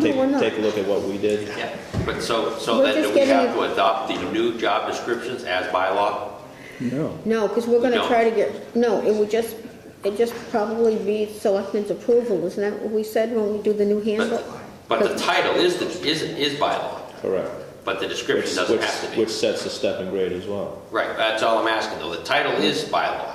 take, we're not. take a look at what we did. Yeah, but so, so We're then do just we have getting to adopt the new job descriptions as bylaw? No. No, because we're gonna No. try to get, no, it would just, it just probably be selectmen's approval, isn't that what we said when we do the new handbook? But, but the title is, the is, is bylaw, Correct. but the Which, description doesn't which, have to be. which sets the step and grade as well. Right, that's all I'm asking though, the title is bylaw.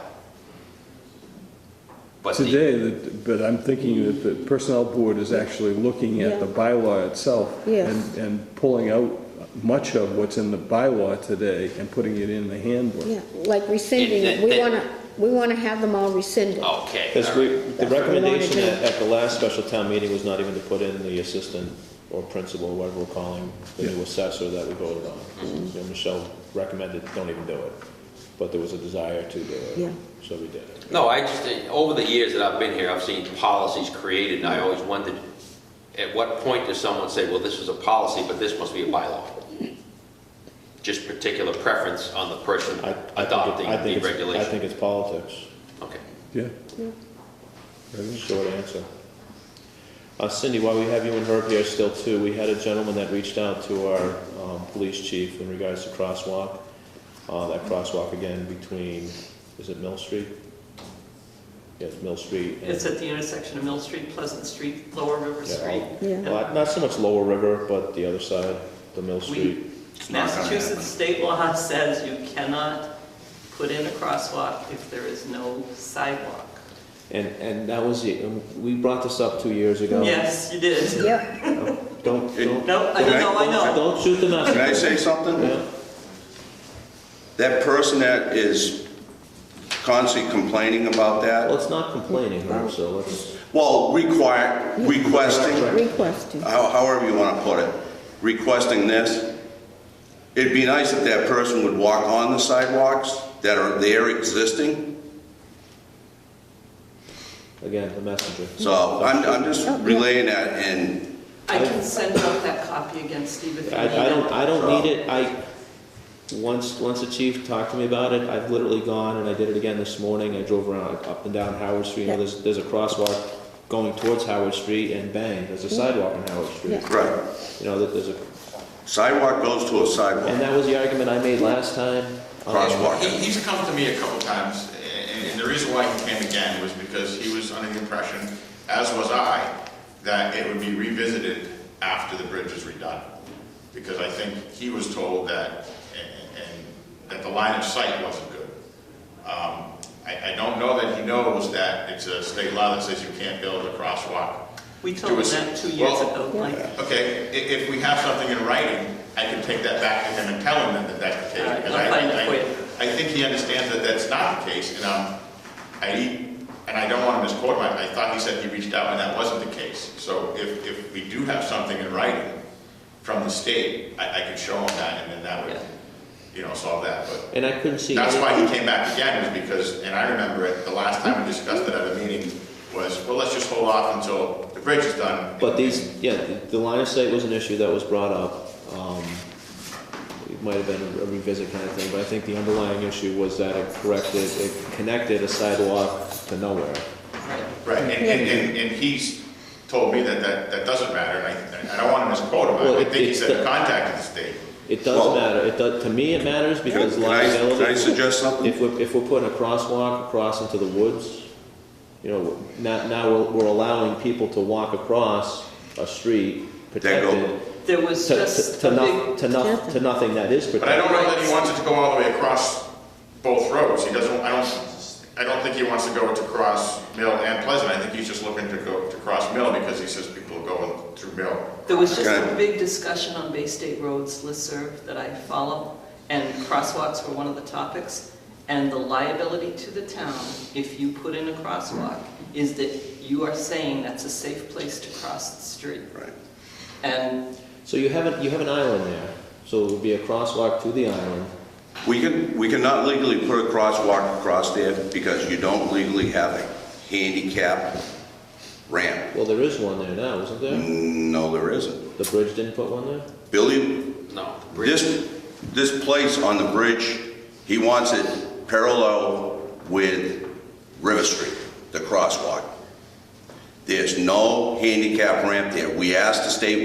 But the, Today, that- but I'm thinking that the personnel board is actually looking at the Yeah. bylaw itself Yes. and, and pulling out much of what's in the bylaw today and putting it in the handbook. Yeah, like rescinding, it. we It- Oh. it- wanna, we wanna have them all rescinded. okay, Because all we, right. the That's what we wanted recommendation to at, at the last special town meeting was not even to put in the assistant or principal, whatever we're calling the new assessor that we voted on. Mm-hmm. You know, Michelle recommended, don't even do it, but there was a desire to do it. Yeah. So we did it. No, I just, think over the years that I've been here, I've seen policies created and I always wondered, at what point does someone say, well, this is a policy, but this must be a bylaw? Just particular preference on the person I- I think it- I adopting think the it's- I regulation. think it's politics, Okay. Yeah. short answer. Uh, Cindy, while we have you and Herb here still too, we had a gentleman that reached out to our, um, police chief in regards to crosswalk. Uh, that crosswalk again between, is it Mill Street? Yes, Mill Street and. It's at the intersection of Mill Street, Pleasant Street, Lower River Yeah, Street. all- Yeah. And Well, Not so much Lower River, but the other side, the Mill We- Street. not gonna Massachusetts state law says you cannot put in a crosswalk if there is no sidewalk. And, and that was, the- um, we brought this up two years ago. Yes, you did. Yep, Don't, don't, No, I don't know, I know. don't shoot the messenger. Can I say something? Yeah. That person that is constantly complaining Well, about that, it's not complaining, Herb, so let's, well, require, requesting, requesting, how- however you want to put it, requesting this, it'd be nice if that person would walk on the sidewalks that are there existing. again, the messenger. So I'm, I'm just relaying that and I can send out that copy again, Steve, if you I, need I don't, it. I don't need it, I, once, once the chief talked to me about it, I've literally gone, and I did it again this morning, I drove around, up and down Howard Street, you know, there's, there's a crosswalk going towards Howard Street, and bang, there's a sidewalk on Howard Street. Yeah. Right. You know, that there's a, Sidewalk goes to a And sidewalk, that was the argument I made last time. Um, crosswalk. He, he's come to me a couple times, and, and the reason why he came again was because he was under the impression, as was I, that it would be revisited after the bridge is redone. Because I think he was told that, and, and that the line of sight wasn't good. Um, I, I don't know that he knows that it's a state law that says you can't build a crosswalk. We to told a s- them that two years Well, ago, Mike. Okay, i- if we have something in writing, I can take that back to him and tell him that that's the All case. right, because I'll I- find it I- for you. I think he understands that that's not the case, and, um, I, and I don't want to misquote him, I I thought he said he reached out and that wasn't the case. So if, if we do have something in writing from the state, I, I could show him that, and then that would, Yeah. you know, solve that, but And I couldn't see. that's any- why he came back again, was because, and I remember it, the last time we discussed it at a meeting, was, well, let's just hold off until the bridge is done. But these, yeah, the- the line of sight was an issue that was brought up. Um, It might have been a revisit kind of thing, but I think the underlying issue was that it corrected, it connected a sidewalk to nowhere. Right. Right, and, and, and- and he's told me that, that, that doesn't matter, and I, I don't want to misquote him, Well, I- I it- think he it's the- said contacted the state. It does Well- matter, it does, to me, it matters because Can I, liability. can I suggest something? If we're, if we're putting a crosswalk across into the woods, you know, now, now we're- we're allowing people to walk across a street There you go. protected. There was to, to, just to, a no, big to, no, to nothing that is But I protected. don't know that he wants it to go all the way across both roads, he doesn't, I don't, I don't think he wants to go to cross Mill and Pleasant, I think he's just looking to go to cross Mill because he says people go through Mill. There was just Okay. a big discussion on Bay State Roads listserv that I follow, and crosswalks were one of the topics. And the liability to the town, if you put in a crosswalk, is that you are saying that's a safe place to cross the street. Right. And So you have a, you have an island there, so it would be a crosswalk to the island. We can, we cannot legally put a crosswalk across there because you don't legally have a handicap ramp. Well, there is one there now, isn't there? Mm. No, there isn't. The bridge didn't put one there. Billy, No. this, this place on the bridge, he wants it parallel with River Street, the crosswalk. There's no handicap ramp there. We asked the state